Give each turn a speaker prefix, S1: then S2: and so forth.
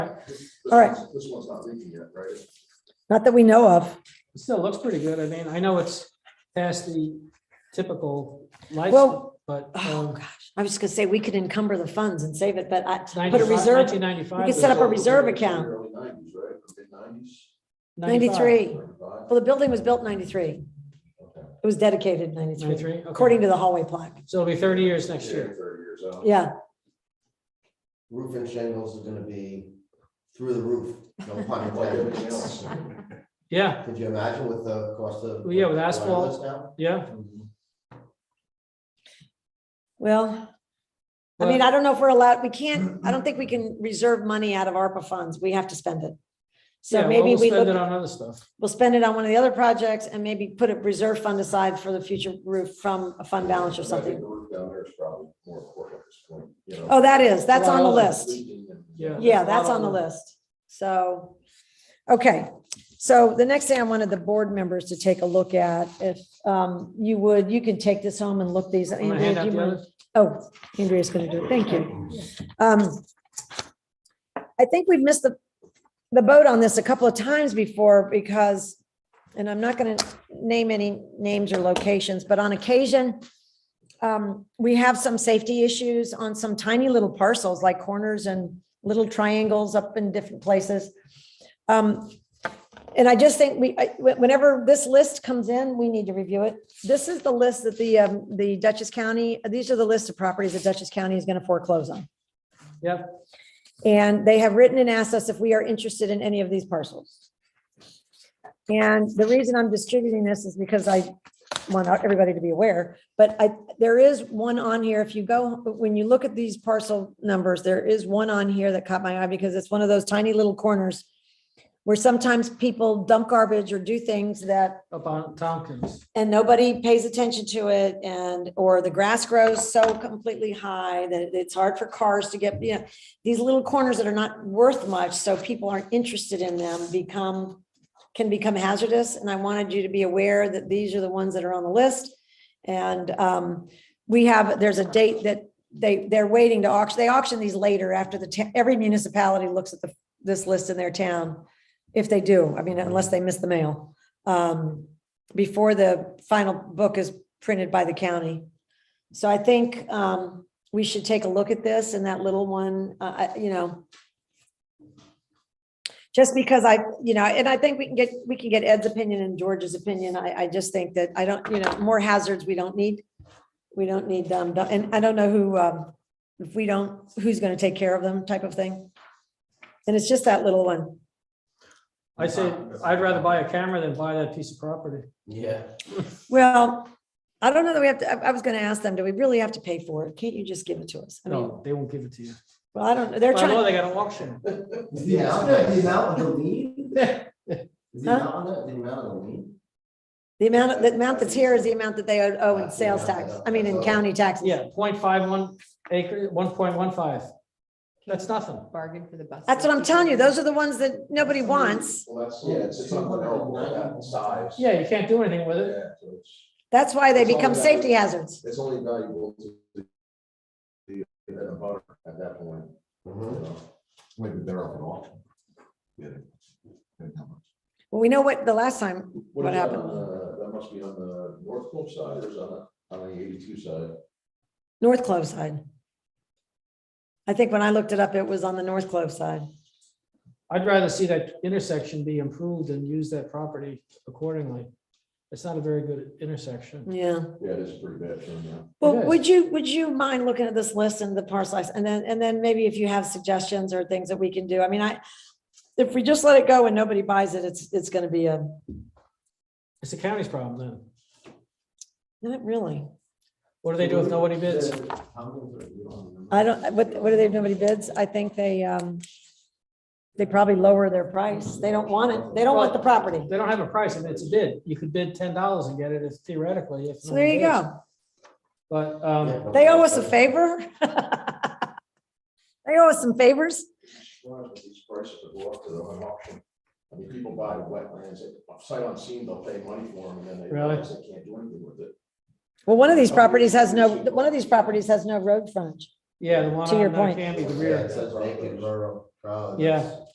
S1: All right.
S2: This one's not leaking yet, right?
S1: Not that we know of.
S3: It Still looks pretty good. I mean, I know it's past the typical lifespan,
S1: Well-
S3: but. um,
S1: Oh, gosh. I was just gonna say, we could encumber the funds and save it, but I, put a reserve,
S3: Nineteen ninety-five.
S1: we could set up a reserve account.
S2: Early nineties, right? Mid nineties?
S1: ninety-three.
S2: Ninety-five?
S1: Well, the building was built ninety-three. It
S2: Okay.
S1: was dedicated ninety-three,
S3: Ninety-three, okay.
S1: according to the hallway plaque.
S3: So it'll be thirty years next
S2: Yeah,
S3: year.
S2: Thirty years out.
S1: Yeah,
S4: roof and shingles is gonna be through the roof. No pun
S2: Like everything
S4: intended.
S2: else.
S3: Yeah,
S4: Could you imagine with the cost of?
S3: Well, yeah, with asphalt.
S4: wireless now?
S3: yeah.
S1: well, I mean, I don't know if we're allowed, we can't, I don't think we can reserve money out of ARPA funds. We have to spend it.
S3: Yeah,
S1: So
S3: well,
S1: maybe
S3: we'll
S1: we
S3: Spend it
S1: look,
S3: on other stuff.
S1: we'll spend it on one of the other projects and maybe put a reserve fund aside for the future roof from a fund balance or
S2: I think
S1: something.
S2: The roof down there is probably more important at this point, you know.
S1: Oh, that is, that's on the
S3: Well,
S1: list.
S2: Leaking and-
S3: Yeah.
S1: Yeah,
S3: There's a
S1: that's
S3: lot
S1: on the
S3: of-
S1: list. So, okay. So the next thing I wanted the board members to take a look at, if um, you would, you can take this home and look these.
S3: I'm gonna
S1: Andrea, do
S3: hand out
S1: you
S3: the
S1: mind?
S3: others.
S1: Oh, Andrea's gonna do it. Thank you. Um, I think we've missed the, the boat on this a couple of times before because, and I'm not gonna name any names or locations, but on occasion, um, we have some safety issues on some tiny little parcels like corners and little triangles up in different places. Um, and I just think we, I- wh- whenever this list comes in, we need to review it. This is the list that the, um, the Dutchess County, these are the list of properties that Dutchess County is going to foreclose on.
S3: Yep,
S1: And they have written and asked us if we are interested in any of these parcels. And the reason I'm distributing this is because I want everybody to be aware, but I, there is one on here, if you go, when you look at these parcel numbers, there is one on here that caught my eye because it's one of those tiny little corners where sometimes people dump garbage or do things that
S3: up on Tompkins.
S1: and nobody pays attention to it and, or the grass grows so completely high that it's hard for cars to get, you know, these little corners that are not worth much, so people aren't interested in them become, can become hazardous. And I wanted you to be aware that these are the ones that are on the list. And um, we have, there's a date that they, they're waiting to auction, they auction these later after the, ta- every municipality looks at the, this list in their town. If they do, I mean, unless they miss the mail. Um, before the final book is printed by the county. So I think um, we should take a look at this and that little one, uh, I- you know. Just because I, you know, and I think we can get, we can get Ed's opinion and George's opinion. I, I just think that I don't, you know, more hazards we don't need. We don't need them. And I don't know who, um, if we don't, who's going to take care of them type of thing. And it's just that little one.
S3: I say, I'd rather buy a camera than buy that piece of property.
S4: Yeah.
S1: Well, I don't know that we have to, I, I was gonna ask them, do we really have to pay for it? Can't you just give it to us? I mean,
S3: No, they won't give it to you.
S1: well, I don't, know. they're
S3: By law,
S1: trying,
S3: they got an auction.
S4: Is the amount, the amount of the lien? Is the
S1: Huh?
S4: amount, of the the amount of the lien?
S1: the amount, the amount that's here is the amount that they owe owe in sales tax, I mean, in county taxes.
S3: Yeah, point five one acre, one point one five. That's nothing.
S5: bargain for the bus.
S1: That's what I'm telling you. Those are the ones that nobody wants.
S2: Well, that's, yeah, it's, it's unbearable, that size.
S3: Yeah, you can't do anything with it.
S2: Yeah, so it's,
S1: That's why they become safety hazards.
S2: it's only valuable to the, the, the butter at that point, you
S4: Mhm.
S2: know. Maybe they're up at all. Yeah. And how much?
S1: Well, we know what, the last time, What
S2: is that
S1: happened?
S2: on the- That must be on the North Pole side or is on the, on the eighty-two side?
S1: North Clove side. I think when I looked it up, it was on the North Clove side.
S3: I'd rather see that intersection be improved and use that property accordingly. It's not a very good intersection.
S1: Yeah.
S2: Yeah, it is pretty bad turn now.
S1: Well,
S3: is.
S1: would you, would you mind looking at this list and the parcel size? And then, and then maybe if you have suggestions or things that we can do? I mean, I, if we just let it go and nobody buys it, it's, it's gonna be a,
S3: It's the county's problem then.
S1: not really.
S3: What do they do
S4: Mm-hmm.
S3: if nobody bids?
S4: How many was it? You don't remember?
S1: I don't, what, what do they, nobody bids? I think they, um, they probably lower their price. They don't want it. They don't want the property.
S3: They don't have a price. I mean, it's a bid. You could bid ten dollars and get it if theoretically. if
S1: So there you
S3: nobody bids.
S1: go.
S3: But, um,
S1: They owe us a favor. They owe us some favors.
S2: Surprised with These prices that go up to the auction. I mean, people buy wetlands, sight unseen, they'll pay money for them and then they
S3: Really?
S2: realize they can't do anything with it.
S1: Well, one of these properties has no, one of these properties has no road frontage.
S3: yeah, the one
S1: To your
S3: on uh,
S1: point.
S3: Canby, the
S4: Yeah,
S3: rear.
S4: it says vacant rural.
S6: Probably.
S4: Yeah.